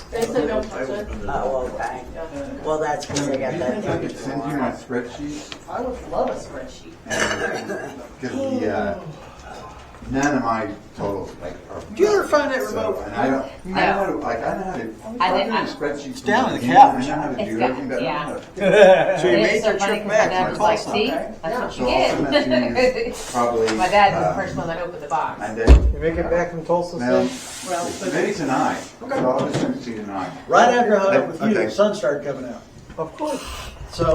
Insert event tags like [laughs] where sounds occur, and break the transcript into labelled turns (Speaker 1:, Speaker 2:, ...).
Speaker 1: They said don't touch it.
Speaker 2: Oh, okay.
Speaker 1: Yeah.
Speaker 2: Well, that's because I got that.
Speaker 3: think I could
Speaker 2: thing
Speaker 3: send you my spreadsheet?
Speaker 1: I would love a spreadsheet.
Speaker 3: Cause the, uh, none of my totals like are.
Speaker 4: Do you ever find that
Speaker 3: so,
Speaker 4: remote?
Speaker 3: And I don't, I know how to, like, I know how to,
Speaker 5: I
Speaker 3: I
Speaker 5: did-
Speaker 3: do
Speaker 5: I-
Speaker 3: spreadsheets.
Speaker 4: It's down on the
Speaker 3: and I
Speaker 4: couch.
Speaker 3: know how to
Speaker 5: It's
Speaker 3: do
Speaker 5: got-
Speaker 3: everything, but I
Speaker 5: yeah.
Speaker 3: don't know. how to-
Speaker 4: So you
Speaker 5: It
Speaker 4: made
Speaker 5: is so
Speaker 4: your
Speaker 5: funny
Speaker 4: trip back
Speaker 5: 'cause My
Speaker 4: and
Speaker 5: dad was
Speaker 4: called
Speaker 5: like, see,
Speaker 4: something.
Speaker 5: that's
Speaker 3: So
Speaker 5: what
Speaker 3: I'll send that
Speaker 5: you [laughs]
Speaker 3: to you
Speaker 5: get.
Speaker 3: probably.
Speaker 5: My dad was
Speaker 3: um,
Speaker 5: the first one that opened the
Speaker 3: I
Speaker 5: box.
Speaker 3: did.
Speaker 4: You make it back from Tulsa,
Speaker 3: Well,
Speaker 4: Steve?
Speaker 3: maybe tonight, so I'll just send it to you tonight.
Speaker 6: Right after I hung up with
Speaker 3: Okay.
Speaker 6: you, the sun started coming out.
Speaker 4: Of course.